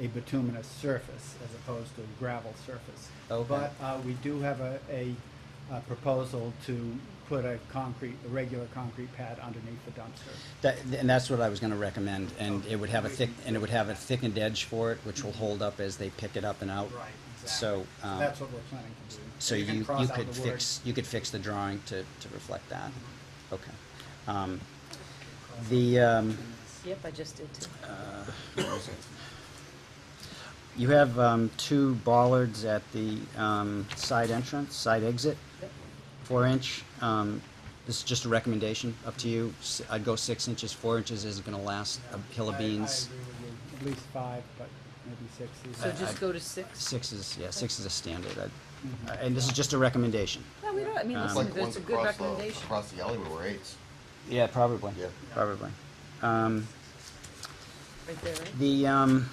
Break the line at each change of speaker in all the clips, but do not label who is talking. a bituminous surface as opposed to a gravel surface.
Okay.
But uh, we do have a, a a proposal to put a concrete, a regular concrete pad underneath the dumpster.
That, and that's what I was gonna recommend, and it would have a thick, and it would have a thickened edge for it, which will hold up as they pick it up and out.
Right, exactly.
So, um,
That's what we're planning to do.
So you,
can
you
cross out
could
the word-
fix, you could fix the drawing to, to reflect that.
Mm-hmm.
Okay. Um, The, um,
Yep, I just did too.
Uh, you have, um, two bollards at the, um, side entrance, side exit,
Yep.
four inch. Um, this is just a recommendation, up to you. S- I'd go six inches, four inches isn't gonna last a hill
I-
of
I
beans.
agree with you. At least five, but maybe six. is-
So
I-
just go to six?
Six is, yeah, six is a standard. I- uh, And this is just a recommendation.
No, we don't, I mean,
Um,
listen,
Like the
that's
ones
a good
across the,
recommendation.
across the alleyway were eights.
Yeah, probably.
Yeah.
Probably. Um,
Right there, right?
the, um, let me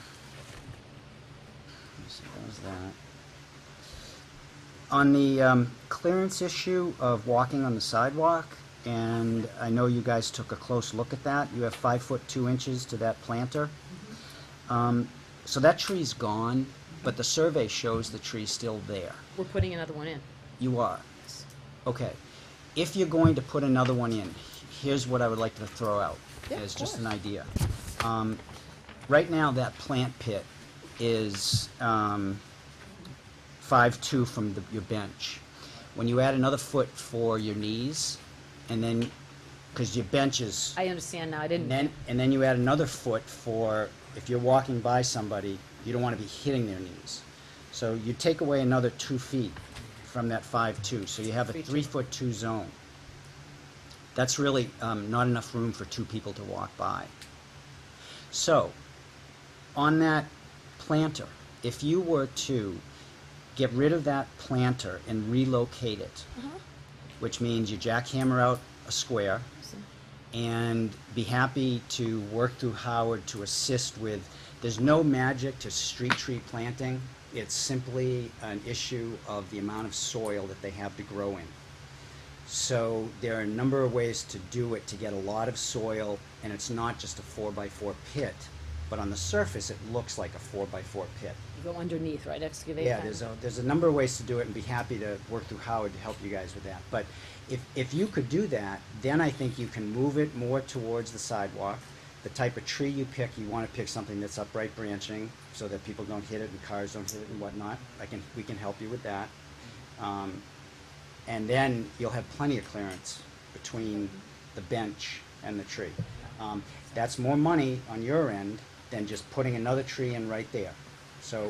see, that was that. On the, um, clearance issue of walking on the sidewalk, and I know you guys took a close look at that, you have five foot two inches to that planter. Um, so that tree's gone, but the survey shows the tree's still there.
We're putting another one in.
You are. Okay. If you're going to put another one in, here's what I would like to throw out.
Yeah, of
as just an idea. Um, right now, that plant pit is, um, five-two from the, your bench. When you add another foot for your knees, and then, cause your bench is
I understand now, I
and
didn't,
then, and then you add another foot for, if you're walking by somebody, you don't want to be hitting their knees. So you take away another two feet from that five-two, so you have a
Three-two.
three-foot-two zone. That's really, um, not enough room for two people to walk by. So, on that planter, if you were to get rid of that planter and relocate it, which means you jackhammer out a square, and be happy to work through Howard to assist with, there's no magic to street tree planting. It's simply an issue of the amount of soil that they have to grow in. So there are a number of ways to do it to get a lot of soil, and it's not just a four by four pit, but on the surface, it looks like a four by four pit.
you go underneath, right, excavate
Yeah,
that.
there's a, there's a number of ways to do it and be happy to work through Howard to help you guys with that. But if, if you could do that, then I think you can move it more towards the sidewalk. The type of tree you pick, you wanna pick something that's upright branching so that people don't hit it and cars don't hit it and whatnot. I can, we can help you with that. Um, and then you'll have plenty of clearance between the bench and the tree. Um, that's more money on your end than just putting another tree in right there. So,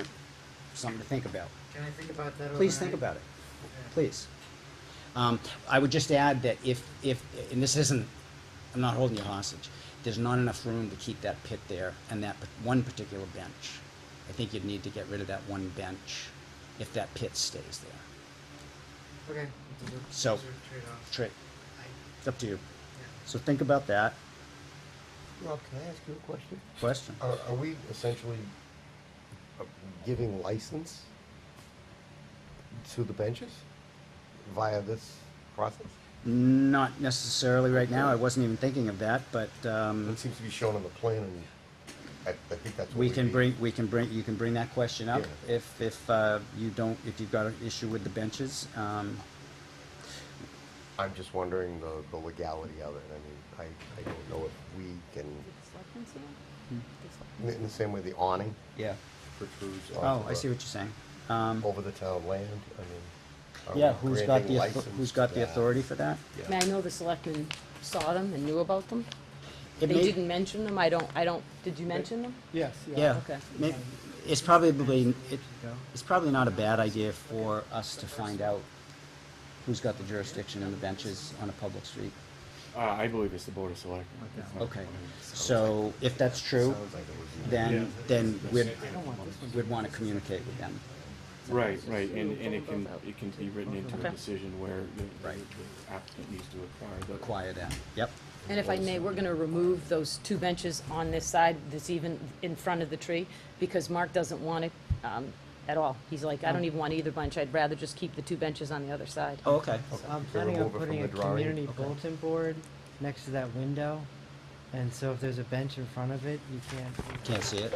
something to think about.
Can I think about that?
Please think about it, please. Um, I would just add that if, if, and this isn't, I'm not holding you hostage, there's not enough room to keep that pit there and that p- one particular bench. I think you'd need to get rid of that one bench if that pit stays there.
Okay.
So-
Those are trade-offs.
Trick,
I-
it's up to you.
yeah.
So think about that
Rob, can I ask you a question?
question.
Are, are we essentially uh, giving license to the benches via this process?
Not necessarily right now, I wasn't even thinking of that, but, um,
It seems to be shown on the plan, and I, I think that's what
we
we
can
need.
bring, we can bring, you can bring that question up
Yeah.
if, if, uh, you don't, if you've got an issue with the benches. Um,
I'm just wondering the, the legality of it. I mean, I, I don't know if we can,
Selectmen's here?
Hmm.
in- in the same way the awning
yeah.
protrudes
Oh,
onto
I see
the-
what you're saying. Um,
over the town land, I mean. are we
yeah, who's got
granting
the, author-
license
who's
to
got the
that?
authority for that?
Yeah.
I mean, I know the selectmen saw them and knew about them. They
It may-
didn't mention them, I don't, I don't, did you mention them?
Yes,
Yeah.
Okay.
May- It's probably, it, it's probably not a bad idea for us to find out who's got the jurisdiction and the benches on a public street.
Uh, I believe it's the Board of Selectmen. It's not-
Okay, so if that's true,
Sounds like it was-
Yeah.
then, then we'd, we'd wanna communicate with them.
Right, right, and, and it can, it can be written into
Okay.
a decision where the-
Right.
the applicant needs to acquire the.
Acquire that, yep.
And if I may, we're gonna remove those two benches on this side that's even in front of the tree, because Mark doesn't want it, um, at all. He's like, I don't even want either bench, I'd rather just keep the two benches on the other side.
Oh, okay,
I'm
Can
planning on
remove it from
putting
the
a
drawing?
community bulletin board next to that window, and so if there's a bench in front of it, you can't.
can't see it.